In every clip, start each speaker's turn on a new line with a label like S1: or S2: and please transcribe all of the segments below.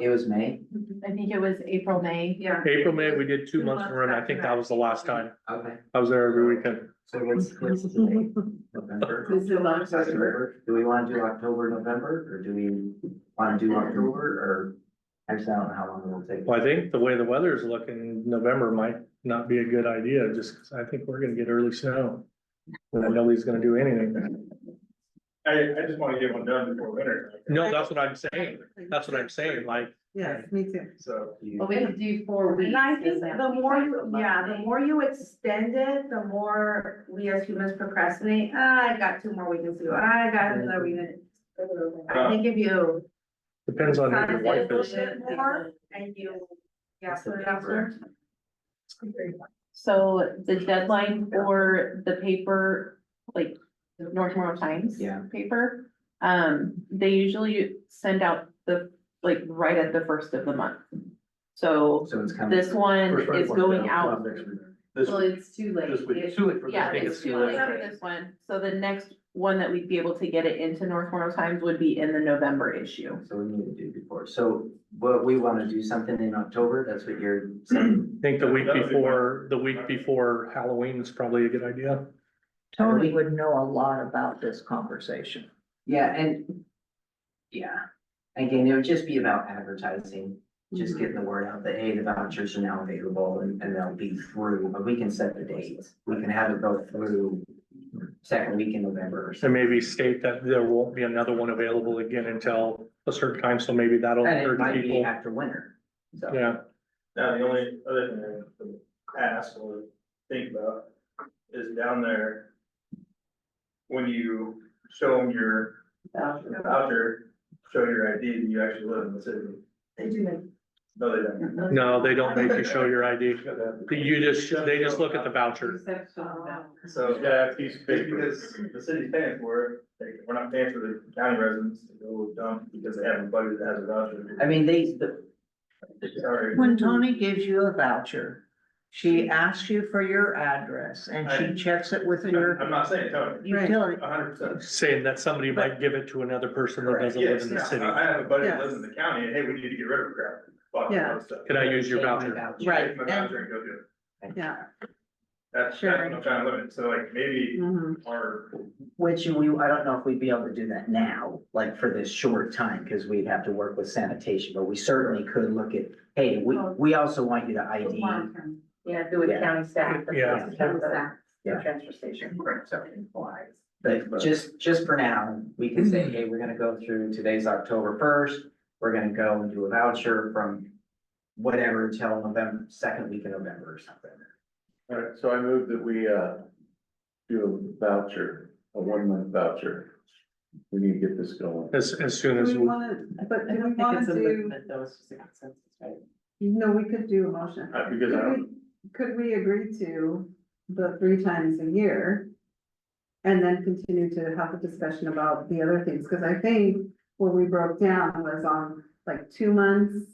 S1: It was May,
S2: I think it was April, May.
S3: Yeah.
S4: April, May, we did two
S3: Two
S4: months in a
S3: months
S4: row, and I think that was the last time.
S1: okay,
S4: I was there every weekend.
S1: so what's, what's the date? November? October? Do we wanna do October, November, or do we wanna do October, or? Actually, I don't know how long it'll take.
S4: Well, I think the way the weather is looking, November might not be a good idea, just 'cause I think we're gonna get early snow. And nobody's gonna do anything.
S5: I, I just wanna get one done before winter, like,
S4: No, that's what I'm saying. That's what I'm saying, like,
S6: Yes, me too.
S5: so.
S1: Do you-
S2: Well, we could do four weeks.
S3: And I think
S2: is that-
S3: the more you, yeah, the more you extend it, the more we as humans procrastinate, ah, I got two more weekends to go, Ah, I got another weekend. I think if you
S4: depends on who your wife is.
S3: more and you, yeah, put it out there.
S2: So the deadline for the paper, like Northmore Times.
S1: Yeah.
S2: Paper, um, they usually send out the, like, right at the first of the month. So
S1: So it's kind of.
S2: this one
S7: Um, First one
S2: is
S7: was
S2: going
S7: down,
S2: out.
S7: next week. This
S2: Well, it's too late.
S7: This week.
S2: It's-
S7: Too late for
S2: Yeah,
S7: this week.
S2: it's too late for this one. So the next one that we'd be able to get it into Northmore Times would be in the November issue.
S1: So we need to do before, so, but we wanna do something in October, that's what you're saying?
S4: I think the week before, the week before Halloween is probably a good idea.
S6: Tony would know a lot about this conversation.
S1: Yeah, and, yeah, again, it would just be about advertising, just
S6: Mm-hmm.
S1: getting the word out that, hey, the vouchers are now available and, and they'll be through, but we can set the dates. We can have it go through second week in November or
S4: And
S1: something.
S4: maybe state that there won't be another one available again until a certain time, so maybe that'll
S1: And it
S4: encourage
S1: might be
S4: people.
S1: after winter, so.
S4: Yeah.
S5: Now, the only other thing I have to ask or think about is down there. When you show them your
S2: So.
S5: voucher, show your ID, and you actually live in the city.
S3: They do that.
S5: No, they don't.
S4: No, they don't make you show your ID. You just, they just look at the voucher.
S3: uh,
S5: So, yeah, it's because the city's paying for it, They- we're not paying for the county residents to go dump because they have a buddy that has a
S1: I
S5: voucher.
S1: mean, they, the,
S5: Sorry.
S6: When Tony gives you a voucher, she asks you for your address and
S5: I-
S6: she checks it with
S5: I'm I'm
S6: your
S5: not saying Tony,
S6: utility.
S5: a hundred percent.
S4: Saying that somebody might give it to another person that doesn't live
S5: Yes,
S4: in the
S5: no,
S4: city.
S5: I I have a buddy that lives in the county, and hey, we need to get rid of crap. Fuck,
S6: Yeah.
S5: all that stuff.
S4: Can I use your voucher?
S6: Right.
S5: Take my voucher and go do it.
S6: Yeah.
S5: That's, that's
S6: Sure.
S5: what I'm trying to limit, so like, maybe
S8: Mm-hmm.
S6: Mhm.
S4: Mm.
S5: our,
S1: which we, I don't know if we'd be able to do that now, like for this short time, because we'd have to work with sanitation, but we certainly could look at, hey, we, we also want you to ID.
S2: Yeah, do with county staff.
S4: Yeah.
S2: County staff,
S1: Yeah.
S2: transfer station.
S1: But Mhm. just, just for now, we can say, hey, we're gonna go through today's October first, we're gonna go and do a voucher from whatever till November, second week in November or something.
S7: All right, so I move that we, uh, do a voucher, a one month voucher. We need to get this going.
S4: As, as soon
S8: Do
S4: as,
S8: we wanna, but do we wanna do, no, we could do a motion.
S5: uh, because I
S8: Could
S5: don't,
S8: we- Could we agree to the three times a year? And then continue to have a discussion about the other things, cause I think what we broke down was on like two months.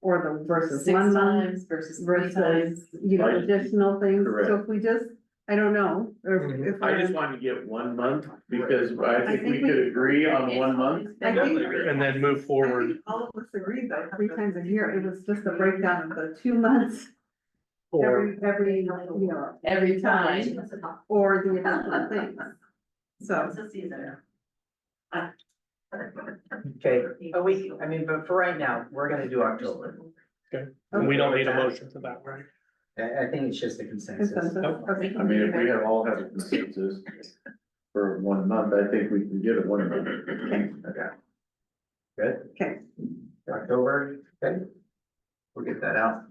S8: Or the versus one month
S2: versus
S8: versus, you know,
S7: Right.
S8: additional things, so
S7: Correct.
S8: if we just, I don't know, or if-
S4: Mhm.
S8: if.
S7: I
S8: we're-
S7: just wanted to get one month because I think we
S8: think we-
S7: could agree on one month.
S8: I think-
S4: and then move
S8: I
S4: forward,
S8: think All of us agreed though, three times a year, it was just a breakdown of the two months,
S4: or
S8: every, every, you know,
S2: Every time.
S8: or the additional things. So,
S1: Okay, but we, I mean, but for right now, we're gonna do October.
S4: we don't need a motion for that, right?
S1: I, I think it's just a consensus.
S8: consensus, okay.
S7: I mean, if we have all have a consensus for one month, I think we can get it one month. Okay.
S1: October, okay? We'll get that out.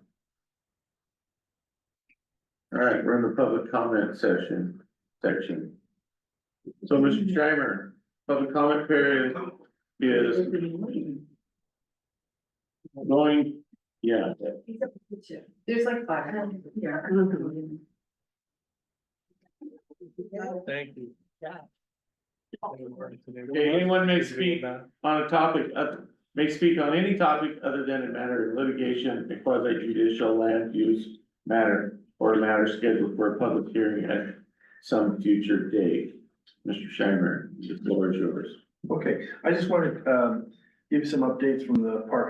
S7: All right, we're in the public comment session, section. So, Mr. Schreiber, public comment period is going, yeah,
S2: There's like five.
S4: Thank you.
S7: Okay, anyone may speak. on a topic, uh, may speak on any topic other than a matter of litigation, quasi judicial land use matter, or a matter scheduled for a public hearing at some future date. Mr. Scheimer, the floor is yours.
S5: okay, I just wanted, um, give you some updates from the park